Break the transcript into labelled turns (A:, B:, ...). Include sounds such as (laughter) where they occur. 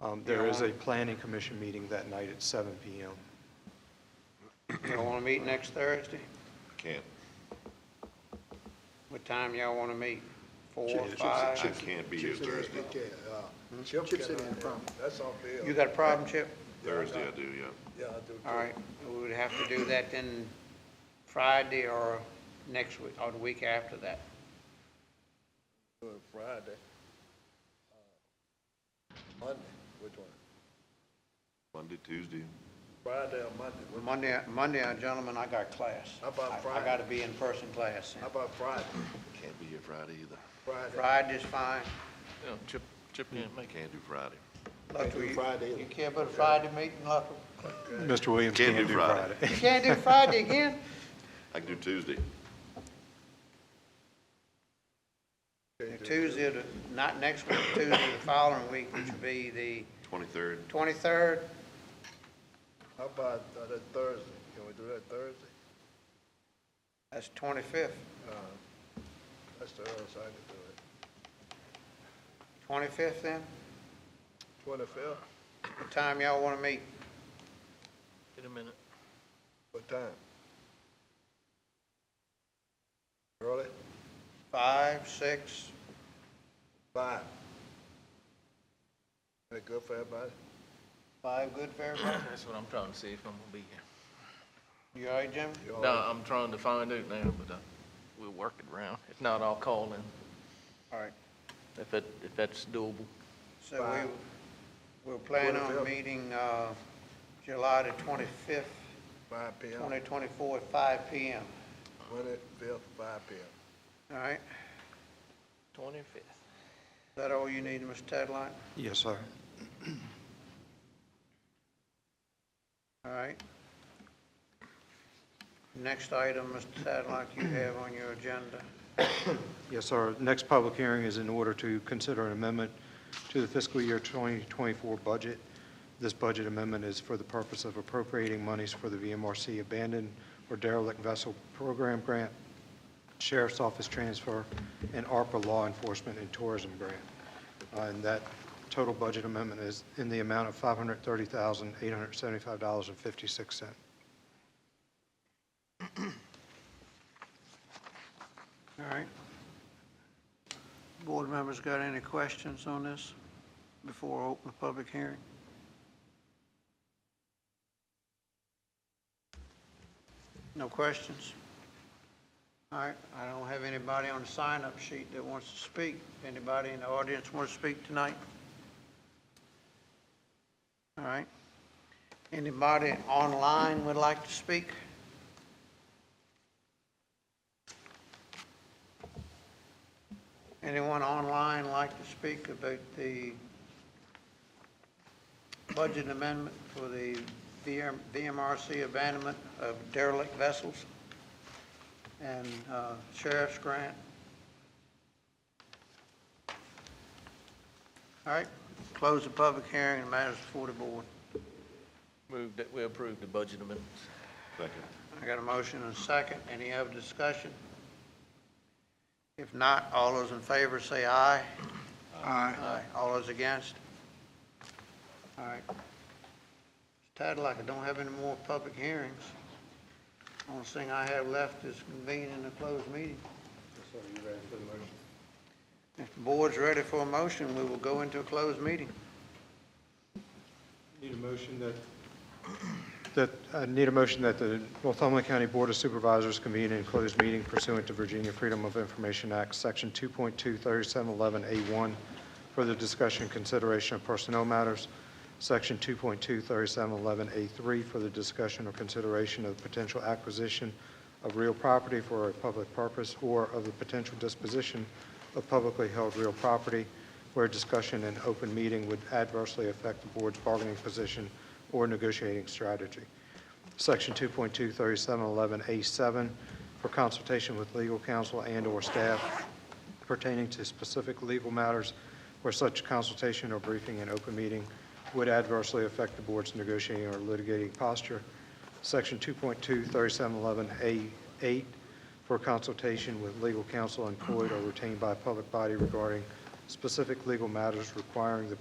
A: Um, There is a planning commission meeting that night at 7 PM.
B: Y'all want to meet next Thursday?
C: Can't,
B: What time y'all want to meet? Four,
A: Chips-
B: five?
C: I can't be here Thursday.
D: Hmm? Chip's in the problem. That's all there.
B: You got a problem, Chip?
C: Thursday I do, yeah.
D: Yeah, I do. too.
B: All right, we would have to do that then Friday or next week, or the week after that.
D: Do it Friday. Uh, Monday, which one?
C: Monday, Tuesday.
D: Friday or Monday? Which-
B: Monday, Monday, uh, gentlemen, I got class.
D: How about
B: I- I
D: Friday?
B: got to be in person class. then.
D: How about Friday?
C: Can't be here Friday either.
D: Friday.
B: Friday's fine.
E: Yeah, Chip, Chip can't make
C: Can't do Friday.
B: Luttrell,
D: do
B: you-
D: Friday.
B: You care about a Friday meeting, Luttrell?
A: Mr. Williams
C: Can't
A: can
C: do
A: do
C: Friday.
A: Friday.
B: You can't do Friday
D: (laughs)
B: again?
C: I can do Tuesday.
B: Tuesday, the- not next week, Tuesday, the following week, which would be the
C: Twenty-third,
B: 23rd.
D: How about uh, that Thursday? Can we do that Thursday?
B: That's 25th.
D: That's the earliest I can do it.
B: 25th then?
D: Twenty-fifth,
B: What time y'all want to meet?
E: it in a minute.
D: what time? Early?
B: Five, six?
D: Five. That good for everybody?
B: Five good for everybody?
E: That's what I'm trying to see if I'm gonna be here.
B: You all right, Jim?
D: You all
E: No, I'm trying to find out now, but, uh, we'll work it around. If not, I'll call in,
B: All right.
E: if it, if that's doable.
B: So
D: Five.
B: we, we're planning on
D: 25th.
B: meeting uh, July the 25th,
D: Five P M,
B: 2024 at five PM.
D: twenty-fifth, five P M.
B: All right? Is
E: Twenty-fifth.
B: that all you need, Mr. Tadlock?
A: Yes, sir.
B: All right. Next item, Mr. Tadlock, you have on your agenda.
A: Yes, sir. Next public hearing is in order to consider an amendment to the fiscal year 2024 budget. This budget amendment is for the purpose of appropriating monies for the VMRC abandoned or derelict vessel program grant, sheriff's office transfer, and ARPA law enforcement and tourism grant. Uh, And that total budget amendment is in the amount of $530,875.56.
B: All right. Board members got any questions on this before I open the public hearing? No questions? All right, I don't have anybody on the sign-up sheet that wants to speak. Anybody in the audience want to speak tonight? All right. Anybody online would like to speak? Anyone online like to speak about the budget amendment for the VM VMRC abandonment of derelict vessels and uh, sheriff's grant? All right, close the public hearing and matters before the board.
E: Move that we approve the budget amendments.
C: second.
B: I got a motion and a second. Any other discussion? If not, all those in favor say aye. Aye. All those against? All right. Tadlock, I don't have any more public hearings. Only thing I have left is convening a closed meeting. If the board's ready for a motion, we will go into a closed meeting.
A: Need a motion that? That, I need a motion that the Northumberland County Board of Supervisors convene in closed meeting pursuant to Virginia Freedom of Information Act, Section 2.23711A1, for the discussion and consideration of personnel matters, Section 2.23711A3, for the discussion or consideration of potential acquisition of real property for a public purpose or of the potential disposition of publicly held real property, where discussion in open meeting would adversely affect the board's bargaining position or negotiating strategy. Section 2.23711A7, for consultation with legal counsel and/or staff pertaining to specific legal matters where such consultation or briefing in open meeting would adversely affect the board's negotiating or litigating posture. Section 2.23711A8, for consultation with legal counsel employed or retained by a public body regarding specific legal matters requiring the